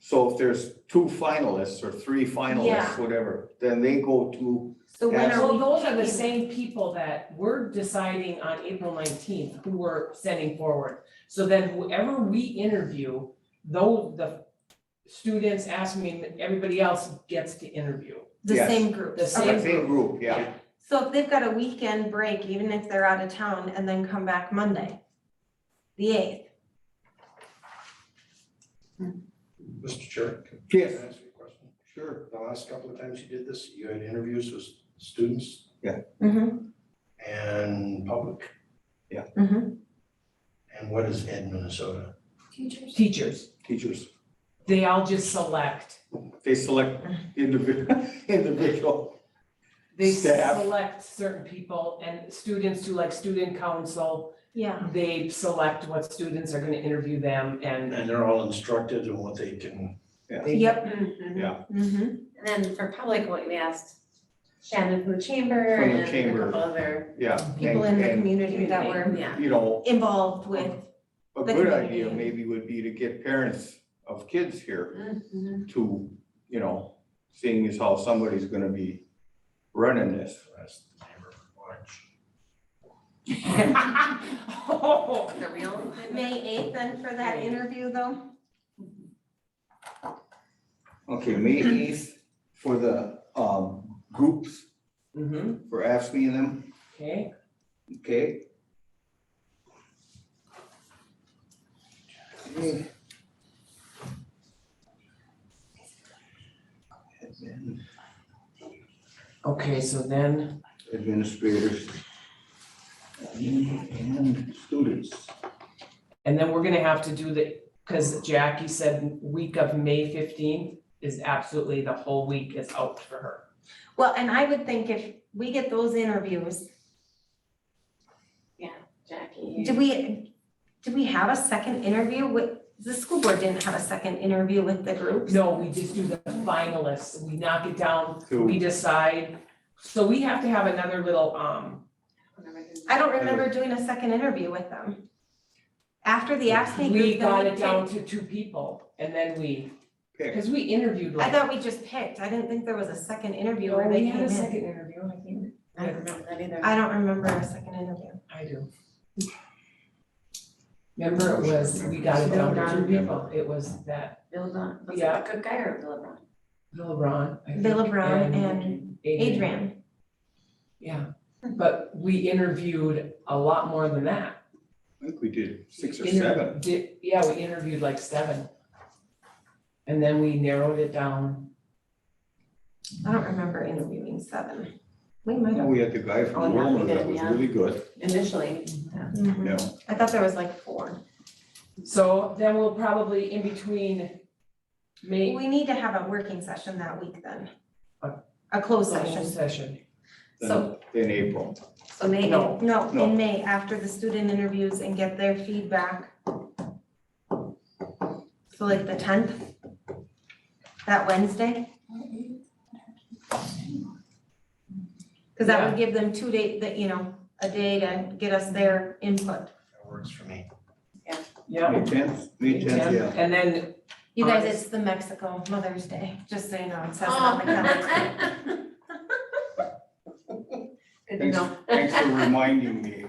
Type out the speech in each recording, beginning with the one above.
So if there's two finalists or three finalists, Yeah. whatever, then they go to, So when are Well, we? those are the picking? same people that we're deciding on April nineteenth who we're sending forward. So then whoever we interview, though the students ask me, everybody else gets to interview. The Yes. same group. The Okay. the Same same group, yeah. So if they've got a weekend break, even if they're out of town and then come back Monday, the eighth, Mr. Chair. can Yes. I ask you a question? Sure. The last couple of times you did this, you had interviews with students Mhm. and public. Yeah. Mhm. And what is Ed Minnesota? Teachers, Teachers, they all just select, they select individual, individual, they Staff. select certain people and students do like student council. yeah. They select what students are gonna interview them and And they're all instructed in what they can, they. Yep. And Mm-hmm. then for public, what we asked Shannon from the chamber From the and a chamber. couple other, um, yeah. People in and- the and, community that were yeah. You know, involved with, a The good community. idea maybe would be to get parents of kids here Mm-hmm. Mhm. to, you know, seeing as how somebody's gonna be running this. ask the neighbor for lunch. Oh, The real. kind of- May eighth then for that interview though? Okay, May eighth for the, um, groups, mhm, for AFSMI and them, okay. okay? Okay. Admin, Okay, so then, Administrators. And students. and then we're gonna have to do the, because Jackie said week of May fifteenth is absolutely the whole week is out for her. Well, and I would think if we get those interviews, Jackie. did we, did we have a second interview with, the school board didn't have a second interview with the groups? No, we just do the finalists, we knock it down, Who? we decide. So we have to have another little, um, I don't remember doing a second interview with them. After the AFSCME we group, got then we it down picked. to two people and then we, Pick. because we interviewed I like. thought we just picked. I didn't think there was a second interview No, where they we had came a in. second interview, I think. I don't remember that either. I don't remember a second interview. I do. Remember it was, we got it down to two people, it was that Bill Brown, was it Yeah. the good guy or Bill Brown? Bill Brown. I think, Bill Brown Adrian, Yeah, but we interviewed a lot more than that. I think we did six or Inter- seven. di- Yeah, we interviewed like seven. And then we narrowed it down. I don't remember interviewing seven. We might No, have. we had the guy Oh, from yeah, we Wilma that did, was yeah. really good, Initially, yeah. you Mhm. know, I thought there was like four. So then we'll probably in between May, We need to have a working session that week then. A- A closed session. session. then, So- then April. So maybe. No, No, No. in May, after the student interviews and get their feedback. So like the tenth? That Wednesday? Cause that would give them two day, that, you know, a day to get us their input. That works for me. Yeah. May tenth, May tenth, yeah. And then, You guys, Honest. it's the Mexico Mother's Day, just so you know, it says it on the calendar. Oh. Good to Thanks, know. thanks for reminding me.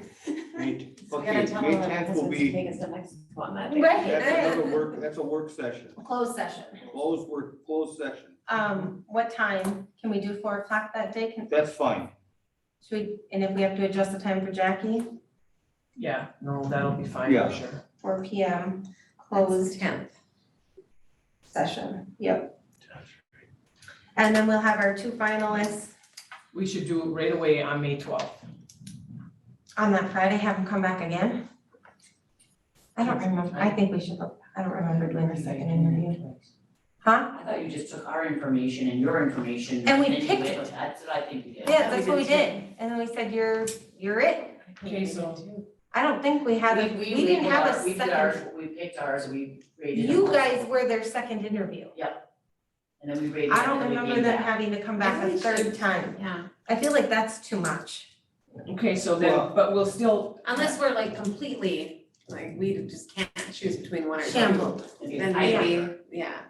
May, So we okay, gotta May tell them that tenth this will is be, Vegas, the Mexico on that day. Right. that's another work, that's a work session, Closed session. closed work, closed session. Um, what time? Can we do four o'clock that day? Can, That's fine. should we, and if we have to adjust the time for Jackie, yeah, no, that'll be fine Yeah. for sure. four P M, Close closed tenth. session. Yep. And then we'll have our two finalists We should do it right away on May twelfth. on that Friday, have them come back again. I don't remember. I think we should, look. I don't remember doing the second interview. Huh? I thought you just took our information and your information. And we then you picked went it. with- That's what I think you did. Yeah, that's what we did. And then we said, you're, you're it. Okay, so I don't think we had, a- we didn't did have our- a We did second. ours, we picked ours, we rated them. You guys were their second interview. And then we rated I them, don't and we remember gave them back. having to come back a Maybe we third should- time. Yeah, I feel like that's too much. Okay, so then, but we'll still, unless we're like completely, like, we just can't choose between one or two. Shambled. Then I- maybe, yeah,